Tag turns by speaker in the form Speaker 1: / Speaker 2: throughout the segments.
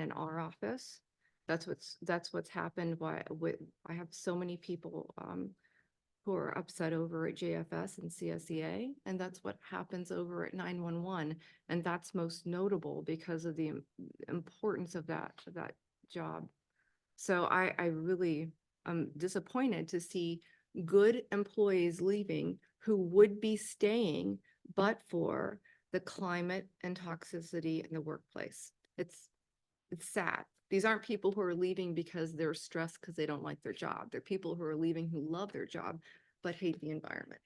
Speaker 1: in our office. That's what's, that's what's happened. Why, with, I have so many people, um, who are upset over at JFS and CSEA, and that's what happens over at nine-one-one. And that's most notable because of the im- importance of that, of that job. So I, I really am disappointed to see good employees leaving who would be staying but for the climate and toxicity in the workplace. It's, it's sad. These aren't people who are leaving because they're stressed because they don't like their job. They're people who are leaving who love their job but hate the environment.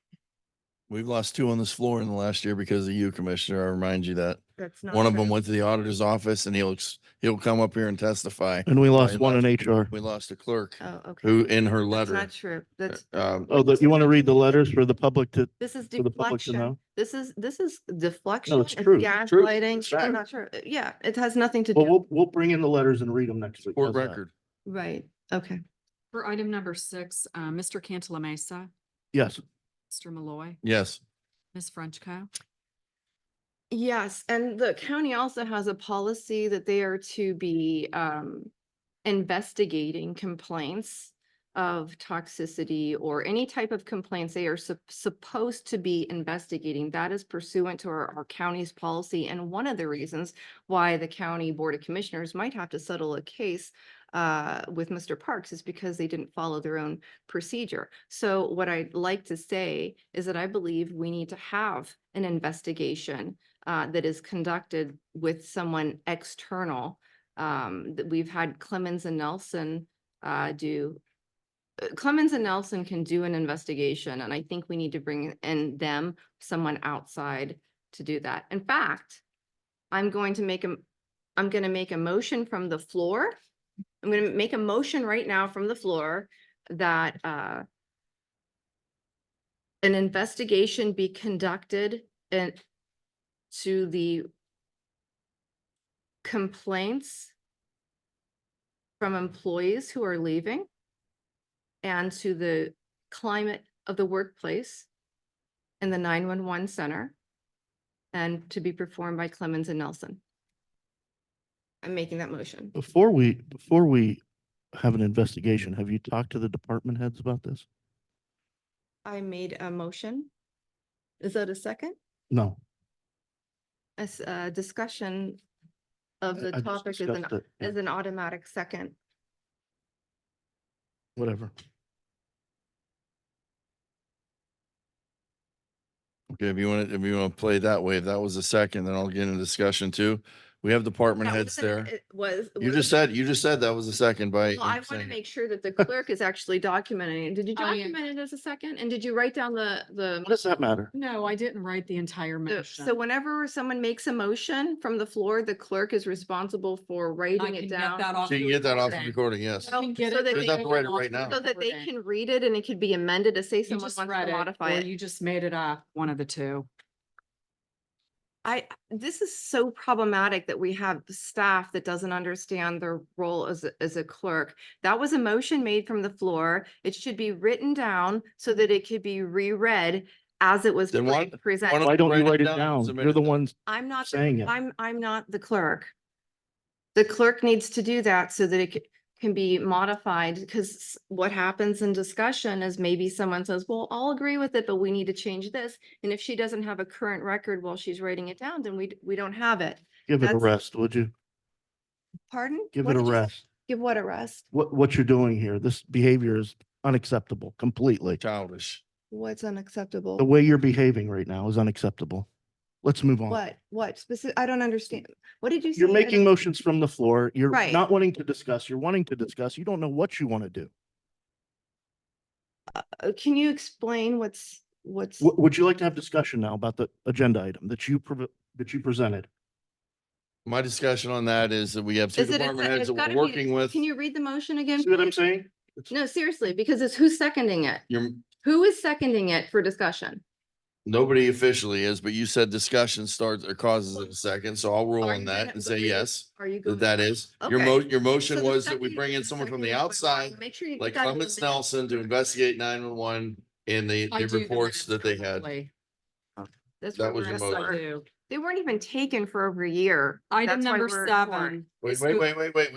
Speaker 2: We've lost two on this floor in the last year because of you, Commissioner. I remind you that.
Speaker 1: That's not.
Speaker 2: One of them went to the auditor's office and he'll, ex- he'll come up here and testify.
Speaker 3: And we
Speaker 2: I
Speaker 3: lost one in HR.
Speaker 2: We lost a clerk
Speaker 1: Oh, okay.
Speaker 2: who in her
Speaker 1: That's
Speaker 2: letter.
Speaker 1: not true. That's,
Speaker 2: um,
Speaker 3: Oh, the- you want to read the letters for the public to,
Speaker 1: this is
Speaker 3: for the public to
Speaker 1: deflection.
Speaker 3: know?
Speaker 1: This is, this is deflection.
Speaker 3: No, it's true. It's true.
Speaker 1: Gaslighting.
Speaker 3: It's
Speaker 1: It's
Speaker 3: fact.
Speaker 1: not true. Yeah, it has nothing to
Speaker 3: Well,
Speaker 1: do.
Speaker 3: we'll, we'll bring in the letters and read them next week.
Speaker 2: Court
Speaker 3: How's that?
Speaker 2: record.
Speaker 1: Right, okay.
Speaker 4: For item number six, uh, Mr. Cantala Mesa,
Speaker 3: Yes,
Speaker 4: Mr. Malloy,
Speaker 2: Yes.
Speaker 4: Ms. Frenchco.
Speaker 1: Yes, and the county also has a policy that they are to be um investigating complaints of toxicity or any type of complaints they are sup- supposed to be investigating. That is pursuant to our our county's policy and one of the reasons why the county board of commissioners might have to settle a case uh with Mr. Parks is because they didn't follow their own procedure. So what I'd like to say is that I believe we need to have an investigation uh, that is conducted with someone external. Um, that we've had Clemens and Nelson, uh, do. uh, Clemens and Nelson can do an investigation and I think we need to bring in them, someone outside to do that. In fact, I'm going to make a, I'm gonna make a motion from the floor. I'm gonna make a motion right now from the floor that, uh, an investigation be conducted and to the complaints from employees who are leaving and to the climate of the workplace in the nine-one-one center and to be performed by Clemens and Nelson. I'm making that motion.
Speaker 3: before we, before we have an investigation, have you talked to the department heads about this?
Speaker 1: I made a motion. Is that a second?
Speaker 3: No.
Speaker 1: As a uh, discussion of the
Speaker 3: I- I just
Speaker 1: topic is an,
Speaker 3: discussed it. Yeah,
Speaker 1: is an automatic second.
Speaker 3: Whatever.
Speaker 2: Okay, if you want to, if you want to play that way, if that was the second, then I'll get in a discussion too. We have department
Speaker 1: That
Speaker 2: heads
Speaker 1: wasn't a-
Speaker 2: there.
Speaker 1: It was.
Speaker 2: You
Speaker 1: was-
Speaker 2: just said, you just said that was the second by.
Speaker 1: Well, I want to make sure that the clerk is actually documenting. it. Did you
Speaker 4: Oh, yeah.
Speaker 1: document it as a second? And did you write down the,
Speaker 3: What
Speaker 1: the?
Speaker 3: does that matter?
Speaker 4: No, I didn't write the entire
Speaker 1: the-
Speaker 4: motion.
Speaker 1: So whenever someone makes a motion from the floor, the clerk is responsible for
Speaker 4: I
Speaker 1: writing
Speaker 4: can
Speaker 1: it
Speaker 4: get
Speaker 1: down.
Speaker 4: that off
Speaker 2: So you
Speaker 4: the
Speaker 2: can get that off the
Speaker 4: recording.
Speaker 2: recording, yes.
Speaker 1: Oh,
Speaker 4: You can get
Speaker 1: so
Speaker 4: it-
Speaker 1: that
Speaker 4: you
Speaker 1: they-
Speaker 4: can
Speaker 2: Doesn't have to
Speaker 4: get
Speaker 2: write it
Speaker 4: off
Speaker 2: right
Speaker 4: the
Speaker 2: now.
Speaker 1: So that they
Speaker 4: recording.
Speaker 1: can read it and it could be amended to say
Speaker 4: You
Speaker 1: someone
Speaker 4: just
Speaker 1: wants
Speaker 4: read
Speaker 1: to
Speaker 4: it,
Speaker 1: modify
Speaker 4: or
Speaker 1: it.
Speaker 4: you just made it up, one of the two.
Speaker 1: I, this is so problematic that we have staff that doesn't understand their role as, a- as a clerk. That was a motion made from the floor. It should be written down so that it could be reread as it was
Speaker 2: Then why-
Speaker 1: pre-
Speaker 2: why
Speaker 1: presented.
Speaker 3: Why don't
Speaker 2: write
Speaker 3: you
Speaker 2: it
Speaker 3: write it
Speaker 2: down and
Speaker 3: down?
Speaker 2: submit
Speaker 3: You're
Speaker 2: it
Speaker 3: the
Speaker 2: then.
Speaker 3: ones
Speaker 1: I'm not, the-
Speaker 3: saying it.
Speaker 1: I'm, I'm not the clerk. The clerk needs to do that so that it c- can be modified because what happens in discussion is maybe someone says, well, I'll agree with it, but we need to change this. And if she doesn't have a current record while she's writing it down, then we, d- we don't have it.
Speaker 3: Give it a
Speaker 1: that's-
Speaker 3: rest, would you?
Speaker 1: Pardon?
Speaker 3: Give
Speaker 1: What
Speaker 3: it a
Speaker 1: did you say?
Speaker 3: rest.
Speaker 1: Give what a rest?
Speaker 3: What, what you're doing here, this behavior is unacceptable completely.
Speaker 2: Childish.
Speaker 1: What's
Speaker 3: The
Speaker 1: unacceptable?
Speaker 3: way you're behaving right now is unacceptable. Let's move on.
Speaker 1: What, what specific, I don't understand. What did you say?
Speaker 3: You're
Speaker 1: I
Speaker 3: making
Speaker 1: don't-
Speaker 3: motions from the floor. You're
Speaker 1: Right.
Speaker 3: not wanting to discuss. You're wanting to discuss. You don't know what you want to do.
Speaker 1: uh, Can you explain what's, what's?
Speaker 3: Would, would you like to have discussion now about the agenda item that you, prov- that you presented?
Speaker 2: My discussion on that is that we have two
Speaker 1: Is it a
Speaker 2: department
Speaker 1: se-
Speaker 2: heads
Speaker 1: it's
Speaker 2: that we're
Speaker 1: gotta be-
Speaker 2: working with.
Speaker 1: Can you read the motion again?
Speaker 3: See what I'm
Speaker 1: please?
Speaker 3: saying?
Speaker 1: No, seriously, because it's who's seconding it?
Speaker 2: You're,
Speaker 1: Who is seconding it for discussion?
Speaker 2: nobody officially is, but you said discussion starts or causes it a second, so I'll roll
Speaker 1: Are
Speaker 2: on
Speaker 1: you
Speaker 2: that
Speaker 1: gonna-
Speaker 2: and say
Speaker 1: okay.
Speaker 2: yes.
Speaker 1: Are you?
Speaker 2: That
Speaker 1: going-
Speaker 2: that is, your mo, your
Speaker 1: So
Speaker 2: motion
Speaker 1: the
Speaker 2: was that we
Speaker 1: second-
Speaker 2: bring in someone from the
Speaker 1: second is by Ryan.
Speaker 2: outside,
Speaker 1: Make sure you.
Speaker 2: like
Speaker 1: got it in the minutes.
Speaker 2: Clemens Nelson, to investigate nine one one and the,
Speaker 4: I
Speaker 2: the
Speaker 4: do the
Speaker 2: reports
Speaker 4: minutes
Speaker 2: that they had.
Speaker 4: correctly.
Speaker 1: That's
Speaker 2: that
Speaker 1: what
Speaker 2: was
Speaker 1: we're
Speaker 2: your
Speaker 4: Yes,
Speaker 1: asking
Speaker 2: motion.
Speaker 4: I
Speaker 1: for.
Speaker 4: do.
Speaker 1: They weren't even taken for over a year.
Speaker 4: Item
Speaker 1: That's why
Speaker 4: number
Speaker 1: we're short.
Speaker 4: seven.
Speaker 2: Wait,
Speaker 4: is
Speaker 2: wait,
Speaker 4: who-
Speaker 2: wait, wait, wait.